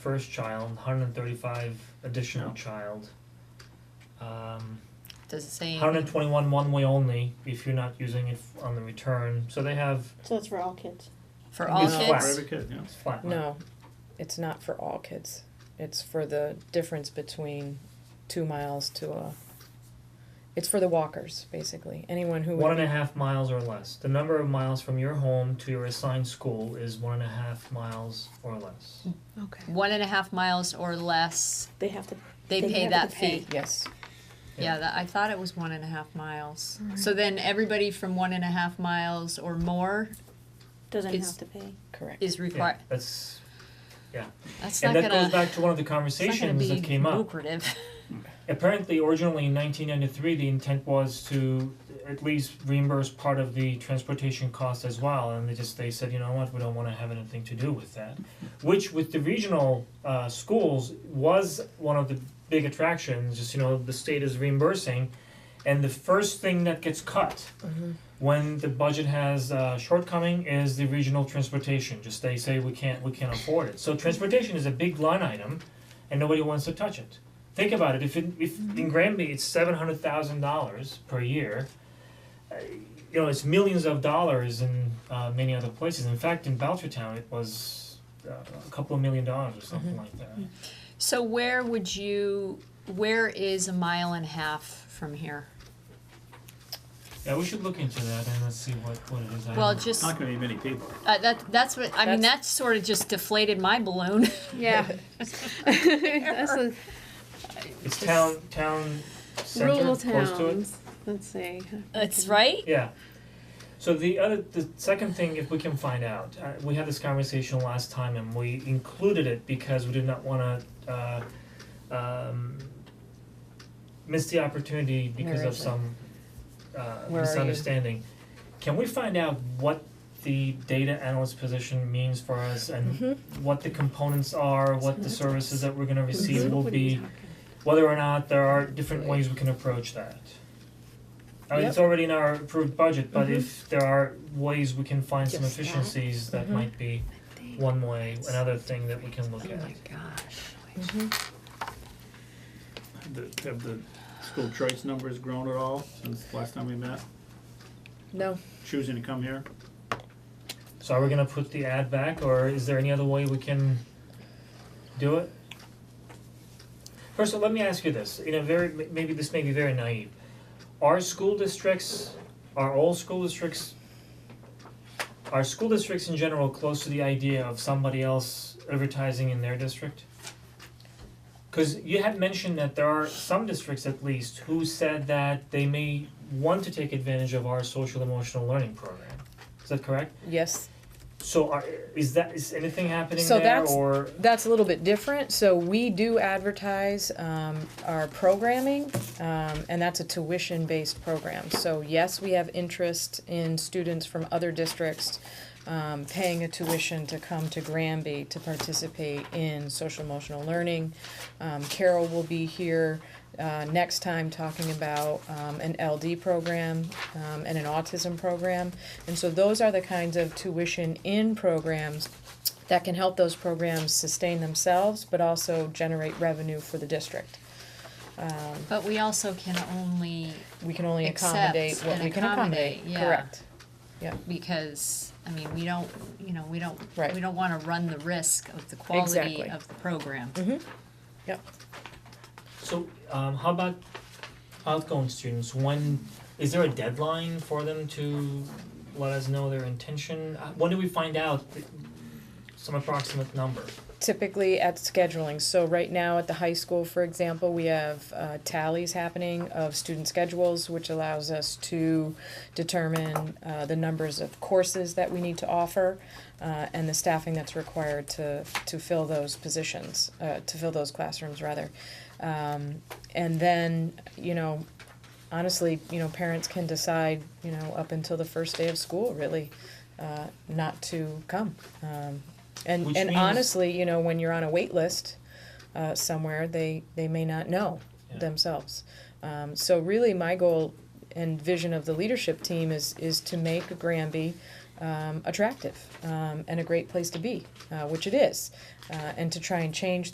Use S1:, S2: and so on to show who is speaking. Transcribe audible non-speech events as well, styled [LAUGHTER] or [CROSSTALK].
S1: first child, hundred and thirty-five additional
S2: No.
S1: child. Um,
S3: Does it say?
S1: hundred and twenty-one one way only if you're not using it f- on the return, so they have,
S4: So that's for all kids.
S3: For all
S1: It's flat.
S2: For
S3: kids?
S2: every kid, yeah.
S1: it's flat.
S5: No, it's not for all kids. It's for the difference between two miles to a. It's for the walkers, basically. Anyone who
S1: One
S5: would
S1: and a
S5: be,
S1: half miles or less. The number of miles from your home to your assigned school is one and a half miles or less.
S4: Okay.
S3: One and a half miles or less,
S4: They have to.
S3: they
S4: They
S3: pay
S4: have
S3: that
S4: to
S3: fee.
S4: pay.
S5: yes,
S3: Yeah, that, I thought it was one and a half miles. So then everybody from one and a half miles or more
S4: Doesn't
S3: It's-
S4: have to pay.
S5: correct.
S3: is
S1: Yeah,
S3: required.
S1: That's,
S3: That's not
S1: and that
S3: gonna,
S1: goes
S3: it's
S1: back to one of the
S3: not gonna
S1: conversations
S3: be
S1: that came up.
S3: lucrative. [LAUGHS]
S1: Apparently, originally in nineteen ninety-three, the intent was to at least reimburse part of the transportation cost as well, and they just, they said, you know what, we don't wanna have anything to do with that. Which with the regional uh schools was one of the big attractions, just, you know, the state is reimbursing, and the first thing that gets cut when the budget has a shortcoming is the regional transportation, just they say we can't, we can't afford it. So transportation is a big line item and nobody wants to touch it. Think about it, if in, if in Granby it's seven hundred thousand dollars per year, uh, you know, it's millions of dollars in uh many other places. In fact, in Belchertown, it was uh, a couple of million dollars or something like that.
S3: So where would you, where is a mile and a half from here?
S1: Yeah, we should look into that and let's see what what it is. I
S3: Well,
S1: don't-
S3: just,
S2: Not gonna be many people.
S3: uh, that, that's what, I mean, that sort of just deflated my balloon. [LAUGHS]
S4: [LAUGHS]
S6: Yeah. That's a-
S1: It's town, town center,
S6: rural
S1: close to it.
S6: towns. Let's see.
S3: That's right?
S1: Yeah. So the other, the second thing, if we can find out, uh, we had this conversation last time and we included it because we did not wanna, uh, um, miss the opportunity because
S5: Where
S1: of
S5: is it?
S1: some, uh,
S5: Where are you?
S1: misunderstanding. Can we find out what the data analyst position means for us and
S5: Mm-hmm.
S1: what the components are, what the services that we're gonna receive will
S6: What are you
S1: be?
S6: talking
S1: whether or not there are different
S5: Right.
S1: ways we can approach that. I mean, it's already in our approved budget, but if there are ways we can find some
S6: Mm-hmm. Just that. Mm-hmm.
S1: efficiencies, that
S5: Mhm.
S1: might be
S6: about?
S1: one way, another thing that we can look
S3: Oh
S1: at.
S3: my gosh.
S2: The- Have the school choice numbers grown at all since last time we met?
S5: No,
S2: Choosing to come here?
S1: So are we gonna put the ad back, or is there any other way we can do it? First, let me ask you this, in a very, m- maybe this may be very naive. Are school districts, are all school districts, are school districts in general close to the idea of somebody else advertising in their district? Cause you had mentioned that there are some districts at least who said that they may want to take advantage of our social emotional learning program. Is that correct?
S5: yes,
S1: So are, is that, is anything happening
S5: So
S1: there
S5: that's-
S1: or?
S5: that's a little bit different. So we do advertise um, our programming, um, and that's a tuition-based program. So yes, we have interest in students from other districts um, paying a tuition to come to Granby to participate in social emotional learning. Um, Carol will be here uh, next time talking about um, an LD program um, and an autism program. And so those are the kinds of tuition in programs that can help those programs sustain themselves but also generate revenue for the district. Um,
S3: But we also can only
S5: we can only
S3: Accept
S5: accommodate what
S3: and
S5: we can accommodate.
S3: accommodate, yeah.
S5: Correct.
S3: because I mean we don't you know we don't
S5: Right.
S3: we don't want to run the risk of the quality
S5: Exactly.
S3: of the program.
S1: So, um, how about outgoing students, when, is there a deadline for them to let us know their intention? Uh, When do we find out th- some approximate number?
S5: Typically at scheduling. So right now at the high school, for example, we have uh, tallies happening of student schedules, which allows us to determine uh, the numbers of courses that we need to offer uh, and the staffing that's required to to fill those positions, uh, to fill those classrooms rather. Um, and then, you know, honestly, you know, parents can decide, you know, up until the first day of school, really, uh, not to come. Um, and
S1: Which
S5: and
S1: means-
S5: honestly, you know, when you're on a wait list uh, somewhere, they they may not know
S1: Yeah.
S5: themselves. Um, so really, my goal and vision of the leadership team is is to make Granby um, attractive um, and a great place to be, uh, which it is, uh, and to try and change